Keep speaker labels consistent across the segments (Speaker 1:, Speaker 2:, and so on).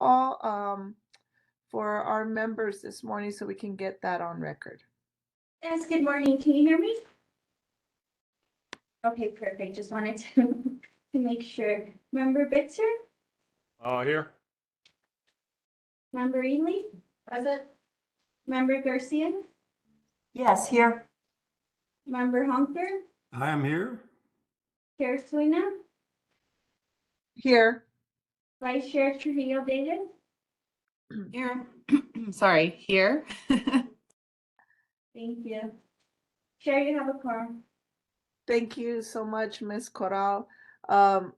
Speaker 1: all um, for our members this morning so we can get that on record.
Speaker 2: Yes, good morning. Can you hear me? Okay, perfect. Just wanted to, to make sure. Member Bitzer,
Speaker 3: Uh, here.
Speaker 2: member Ely,
Speaker 4: Present?
Speaker 2: member Garcia,
Speaker 4: Yes, here.
Speaker 2: member Humper,
Speaker 5: I am here.
Speaker 2: Chair Sweeney,
Speaker 1: Here,
Speaker 2: Vice Chair Trujillo David,
Speaker 4: Here. Sorry, here.
Speaker 2: Thank you. Chair, you have a quorum.
Speaker 1: thank you so much, Ms. Corral. Um,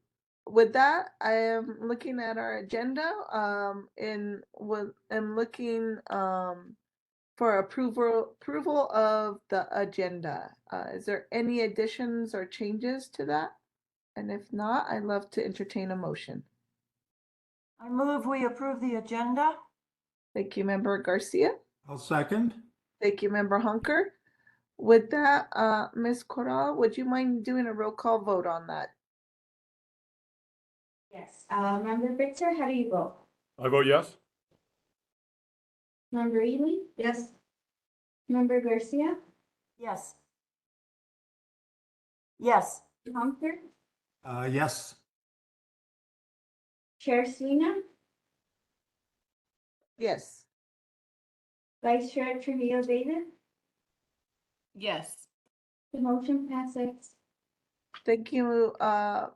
Speaker 1: with that, I am looking at our agenda um, and with, I'm looking um, for approval approval of the agenda. Uh, is there any additions or changes to that? And if not, I'd love to entertain a motion.
Speaker 6: I move we approve the agenda.
Speaker 1: Thank you, Member Garcia.
Speaker 5: I'll second.
Speaker 1: Thank you, Member Hunker. With that, uh, Ms. Corral, would you mind doing a roll call vote on that?
Speaker 2: Yes. Uh, member Bitzer, how do you vote?
Speaker 3: I vote yes.
Speaker 2: Member Ely? Yes. Member Garcia,
Speaker 6: Yes. Yes.
Speaker 2: Humper,
Speaker 5: Uh, yes.
Speaker 2: Chair Sweeney,
Speaker 1: Yes,
Speaker 2: Vice Chair Trujillo David.
Speaker 4: Yes.
Speaker 2: The motion passes.
Speaker 1: thank you, uh,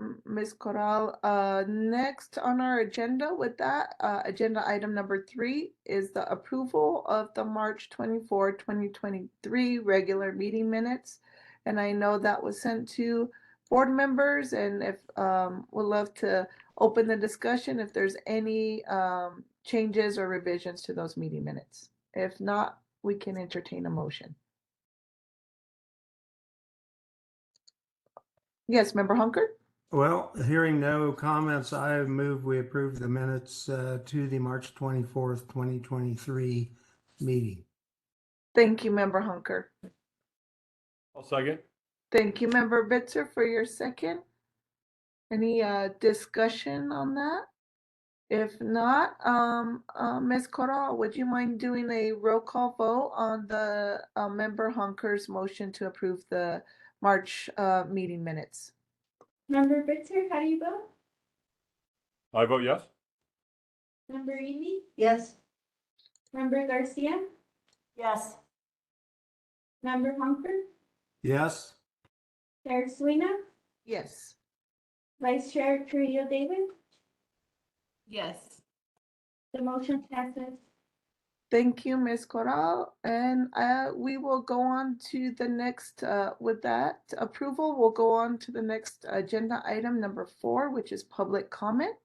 Speaker 1: M- Ms. Corral. Uh, next on our agenda with that, uh, agenda item number three is the approval of the March 24, 2023 regular meeting minutes. And I know that was sent to board members and if, um, would love to open the discussion if there's any, um, changes or revisions to those meeting minutes. If not, we can entertain a motion. Yes, Member Hunker?
Speaker 5: Well, hearing no comments, I move we approve the minutes uh, to the March 24th, 2023 meeting.
Speaker 1: Thank you, Member Hunker.
Speaker 3: I'll second.
Speaker 1: Thank you, Member Bitzer, for your second. Any uh, discussion on that? If not, um, uh, Ms. Corral, would you mind doing a roll call vote on the uh, Member Hunker's motion to approve the March uh, meeting minutes?
Speaker 2: Member Bitzer, how do you vote?
Speaker 3: I vote yes.
Speaker 2: Member Ely,
Speaker 4: Yes.
Speaker 2: member Garcia,
Speaker 6: Yes.
Speaker 2: member Humper,
Speaker 5: Yes.
Speaker 2: Chair Sweeney,
Speaker 1: Yes.
Speaker 2: Vice Chair Trujillo David.
Speaker 4: Yes.
Speaker 2: The motion passes.
Speaker 1: Thank you, Ms. Corral. And uh, we will go on to the next, uh, with that approval, we'll go on to the next agenda item number four, which is public comment.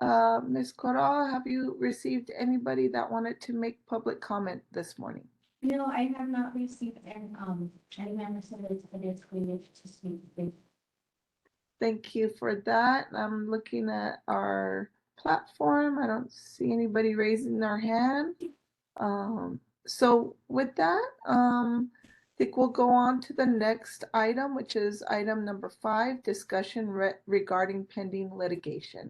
Speaker 1: Uh, Ms. Corral, have you received anybody that wanted to make public comment this morning?
Speaker 2: No, I have not received an, um, any members of the committee who wish to speak. with-
Speaker 1: Thank you for that. I'm looking at our platform. I don't see anybody raising their hand. Um, so with that, um, I think we'll go on to the next item, which is item number five, discussion re- regarding pending litigation.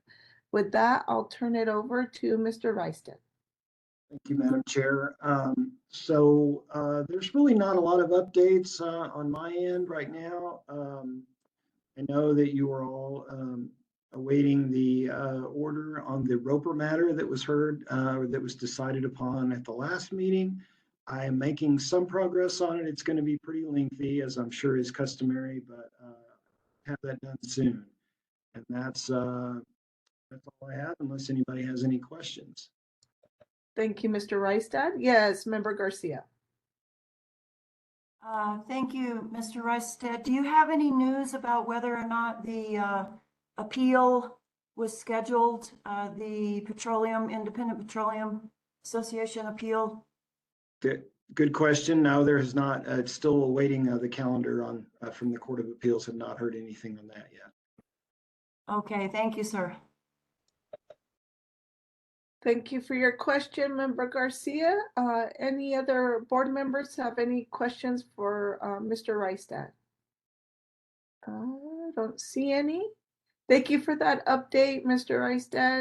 Speaker 1: With that, I'll turn it over to Mr. Reiston.
Speaker 7: Thank you, Madam Chair. Um, So uh, there's really not a lot of updates uh, on my end right now. Um, I know that you are all um, awaiting the uh, order on the Roper matter that was heard, uh, or that was decided upon at the last meeting. I am making some progress on it. It's going to be pretty lengthy, as I'm sure is customary, but uh, have that done soon. And that's, uh, that's all I have unless anybody has any questions.
Speaker 1: Thank you, Mr. Reiston. Yes, Member Garcia.
Speaker 6: Uh, Thank you, Mr. Reichstad. Do you have any news about whether or not the uh, appeal was scheduled? uh, The Petroleum, Independent Petroleum Association appeal?
Speaker 7: Good, good question. No, there is not, uh, it's still awaiting uh, the calendar on, uh, from the Court of Appeals. Have not heard anything on that yet.
Speaker 6: Okay, thank you, sir.
Speaker 1: Thank you for your question, Member Garcia. Uh, Any other board members have any questions for uh, Mr. Reistad? Uh, Don't see any. Thank you for that update, Mr. Reistad.